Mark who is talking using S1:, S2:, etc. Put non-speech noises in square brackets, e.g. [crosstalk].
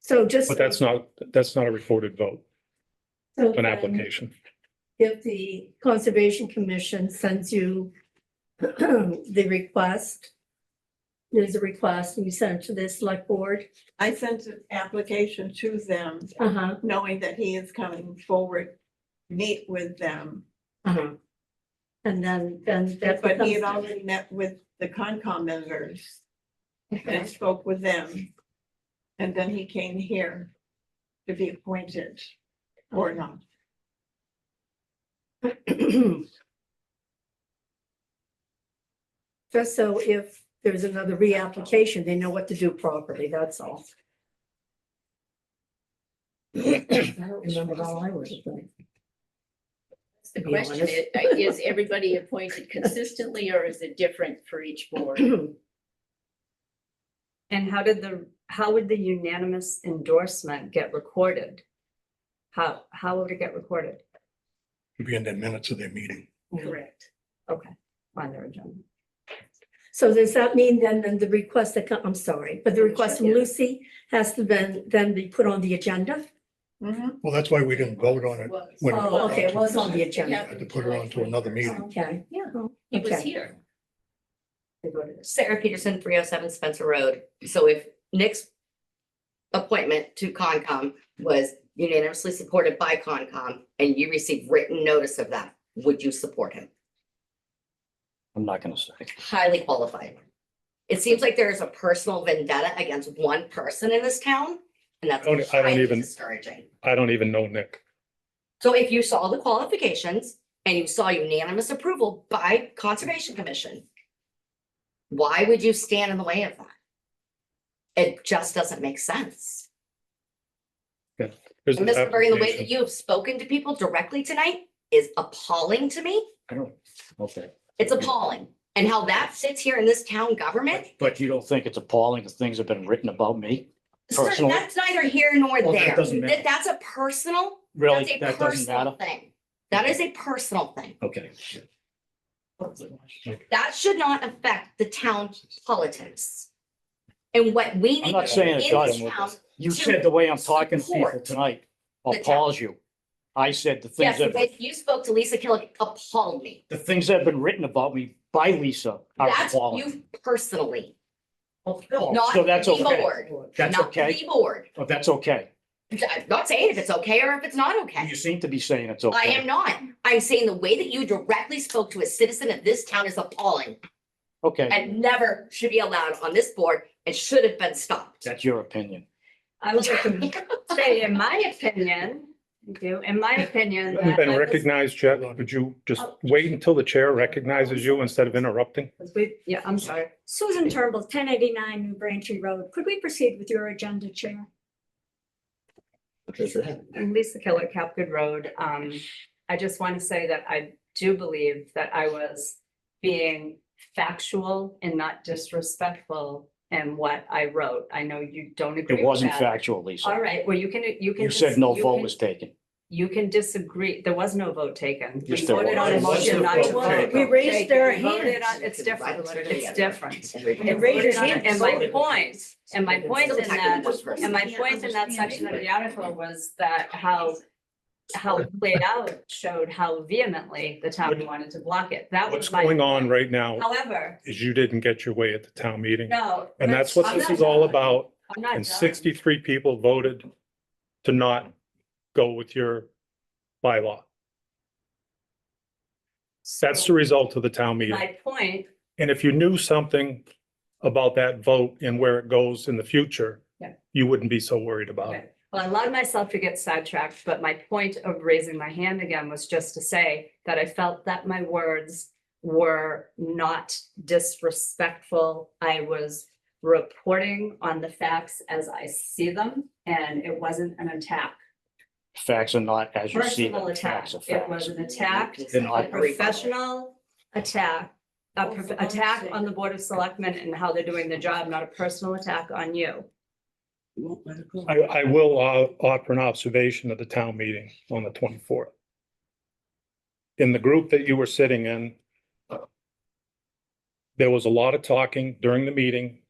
S1: So just.
S2: But that's not, that's not a recorded vote,
S1: so
S2: an
S1: then
S2: application.
S1: If the Conservation Commission sends you [clears throat] the request, there's a request and you send it to the select board,
S3: I sent an application to them,
S1: uh-huh,
S3: knowing that he is coming forward, meet with them.
S1: uh-huh. And then, then that.
S3: But he had
S1: becomes-
S3: already met with the Concom members
S1: Okay.
S3: and spoke with them. And then he came here to be appointed or not.
S1: [clears throat] Just so if there's another reapplication, they know what to do properly, that's all. I don't remember how I was.
S4: The
S1: be
S4: question
S1: honest.
S4: is, uh, is everybody appointed consistently or is it different for each board?
S5: [clears throat]
S6: And how did the, how would the unanimous endorsement get recorded? How, how would it get recorded
S7: It'd Be in the minutes of their meeting.
S4: Correct.
S6: on their agenda?
S1: So does that mean then, then the request that, co- I'm sorry, but the request from
S4: Yeah.
S1: Lucy has to then, then be put on the agenda?
S3: Mhm.
S7: Well, that's why we didn't vote on it.
S4: Was.
S7: when it
S1: Oh,
S7: got
S1: okay,
S7: to
S1: it was on the
S7: consent.
S1: agenda.
S7: Had to put her on to another
S5: Um,
S7: meeting.
S1: Okay.
S8: Yeah, he was
S1: Okay.
S8: here.
S6: They go to this.
S8: Sarah Peterson, three oh seven Spencer Road. So if Nick's appointment to Concom was unanimously supported by Concom and you received written notice of that, would you support him?
S9: I'm not gonna say.
S8: Highly qualified. It seems like there is a personal vendetta against one person in this town, and
S2: I don't-
S8: that's
S2: I don't
S8: highly
S2: even-
S8: discouraging.
S2: I don't even know Nick.
S8: So if you saw the qualifications and you saw unanimous approval by Conservation Commission, why would you stand in the way of that? It just doesn't make sense.
S2: There's
S8: And
S2: an
S8: Mr. Bergen, the way that
S2: application.
S8: you have spoken to people directly tonight is appalling to me.
S9: I don't, okay.
S8: It's appalling. And how that sits here in this town government,
S9: But you don't think it's appalling that things have been written about me?
S8: sir,
S9: Personal.
S8: that's neither here nor
S9: Well, that
S8: there.
S9: doesn't matter.
S8: That, that's a personal, that's
S9: Really?
S8: a
S9: That doesn't
S8: personal
S9: matter?
S8: thing. That is a personal thing.
S9: Okay.
S8: That should not affect the town politics. And what we
S9: I'm
S8: need
S9: not
S8: to do
S9: saying
S8: in
S9: it does.
S8: this town.
S9: You
S8: to
S9: said the way I'm talking to people
S8: support
S9: tonight
S8: the town.
S9: appalls you. I said the things
S8: Yes,
S9: that,
S8: but you spoke to Lisa Killick appalled me.
S9: the things that have been written about me by Lisa are
S8: That's
S9: appalling.
S8: you personally,
S9: Oh,
S8: not
S9: So
S8: the
S9: that's okay.
S8: board.
S9: That's
S8: Not
S9: okay.
S8: the board.
S9: Oh, That's okay.
S8: I'm not saying if it's okay or if it's not okay.
S9: You seem to be saying it's
S8: I am
S9: okay.
S8: not. I'm saying the way that you directly spoke to a citizen of this town is appalling
S9: Okay,
S8: and never should be allowed on this board and should have been stopped.
S9: that's your opinion.
S6: I would like to say, in my opinion, you do, in my
S2: You
S6: opinion.
S2: Haven't
S6: that
S2: been
S6: I Oh. was-
S2: recognized yet. Would you just wait until the chair recognizes you instead of interrupting?
S6: because we- Yeah, I'm sorry.
S5: Susan Turnbull, ten eighty-nine New Braintree Road. Could we proceed with your agenda, Chair?
S6: I'm Lisa Killick, Capgood Road. Um, I just want to say that I do believe that I was being factual and not disrespectful in what I wrote. I know you don't agree
S9: It
S6: with
S9: wasn't
S6: that.
S9: factual,
S6: All
S9: Lisa.
S6: right, well, you can, you can.
S9: You
S6: dis-
S9: said no
S6: you
S9: vote
S6: can-
S9: was taken.
S6: You can disagree. There was no vote taken. We
S9: Yes, there
S6: voted on a
S9: was.
S6: motion not to vote.
S1: We raised our
S6: We voted on-
S1: hands.
S6: It's different. It's different.
S8: And
S1: raise your
S6: hand. And my point- and my point in that- And
S8: that.
S6: my point in that section of the article was that how, how it played out showed how vehemently the town wanted to block it. That
S2: What's
S6: was my.
S2: going on right now
S6: However,
S2: is you didn't get your way at the town meeting.
S6: no.
S2: And that's what
S6: I'm
S2: this
S6: not
S2: is all
S6: done.
S2: about.
S6: I'm not
S2: And
S6: done.
S2: sixty-three people voted to not go with your bylaw. That's the
S6: So
S2: result of the town meeting.
S6: My point,
S2: And if you knew something about that vote and where it goes in the future,
S6: Yeah.
S2: you wouldn't be so worried about it.
S6: well, I allowed myself to get sidetracked, but my point of raising my hand again was just to say that I felt that my words were not disrespectful. I was reporting on the facts as I see them, and it wasn't an attack.
S9: Facts are not as you see
S6: personal
S9: them.
S6: attack.
S9: Facts are
S6: It
S9: facts.
S6: was an attack,
S9: Then
S6: a
S9: I-
S6: professional attack, a prof-
S3: Well, for
S6: attack
S3: God's
S6: on the Board of Selectmen and how they're doing their job, not a personal attack on you.
S2: I, I will uh, offer an observation of the town meeting on the twenty-fourth. In the group that you were sitting in, there was a lot of talking during the meeting